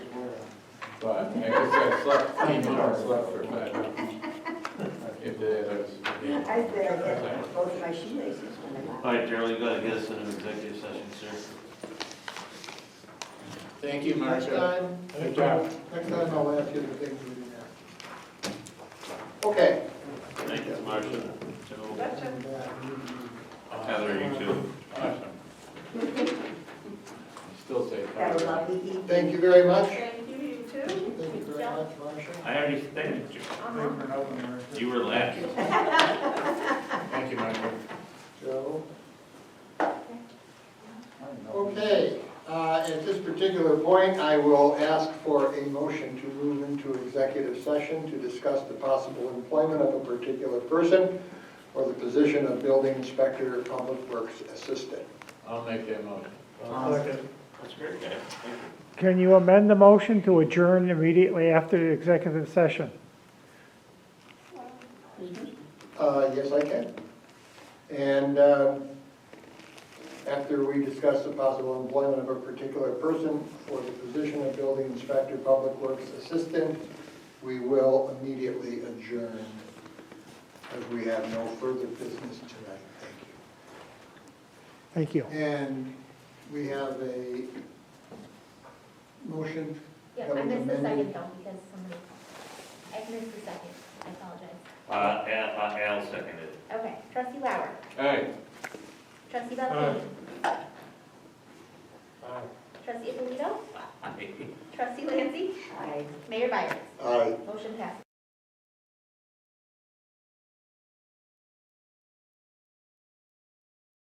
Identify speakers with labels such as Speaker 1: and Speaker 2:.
Speaker 1: but I guess I slept, came in and slept for five hours. If that is,
Speaker 2: I said I had both my shoelaces when I
Speaker 3: All
Speaker 2: left.
Speaker 3: right, Darrell, you gotta get us in an executive session, sir.
Speaker 1: thank you,
Speaker 4: Next
Speaker 1: Marcia.
Speaker 4: time,
Speaker 1: Good job.
Speaker 4: next time I'll ask you the things we didn't ask. Okay.
Speaker 3: Thank you, Marcia. Joe, Heather, you too.
Speaker 1: Awesome. Still say
Speaker 2: Had a
Speaker 1: five.
Speaker 2: lovely evening.
Speaker 4: Thank you very much.
Speaker 5: Thank you, you too.
Speaker 4: Thank you very much, Marcia.
Speaker 3: I already thanked you.
Speaker 5: Uh-huh.
Speaker 3: You were last.
Speaker 1: Thank you, Michael.
Speaker 4: Joe. Okay, uh, at this particular point, I will ask for a motion to move into executive session to discuss the possible employment of a particular person or the position of building inspector or public works assistant.
Speaker 1: I'll make that motion.
Speaker 3: That's great, guys. Thank you.
Speaker 6: Can you amend the motion to adjourn immediately after the executive session?
Speaker 4: Uh, Yes, I can. And um, after we discuss the possible employment of a particular person for the position of building inspector, public works assistant, we will immediately adjourn as we have no further business tonight. Thank you.
Speaker 6: Thank you.
Speaker 4: And we have a motion.
Speaker 7: Yeah,
Speaker 4: that
Speaker 7: I
Speaker 4: was
Speaker 7: missed the
Speaker 4: amended.
Speaker 7: second though, because somebody, I missed the second, I apologize.
Speaker 3: Uh, Al, uh, Al seconded.
Speaker 7: Okay, trustee Lauer,
Speaker 1: Aye.
Speaker 7: trustee Valteen. Trustee Alito,
Speaker 3: Aye.
Speaker 7: trustee Lancy,
Speaker 2: I
Speaker 7: mayor Byers,
Speaker 4: Aye.
Speaker 7: motion passes.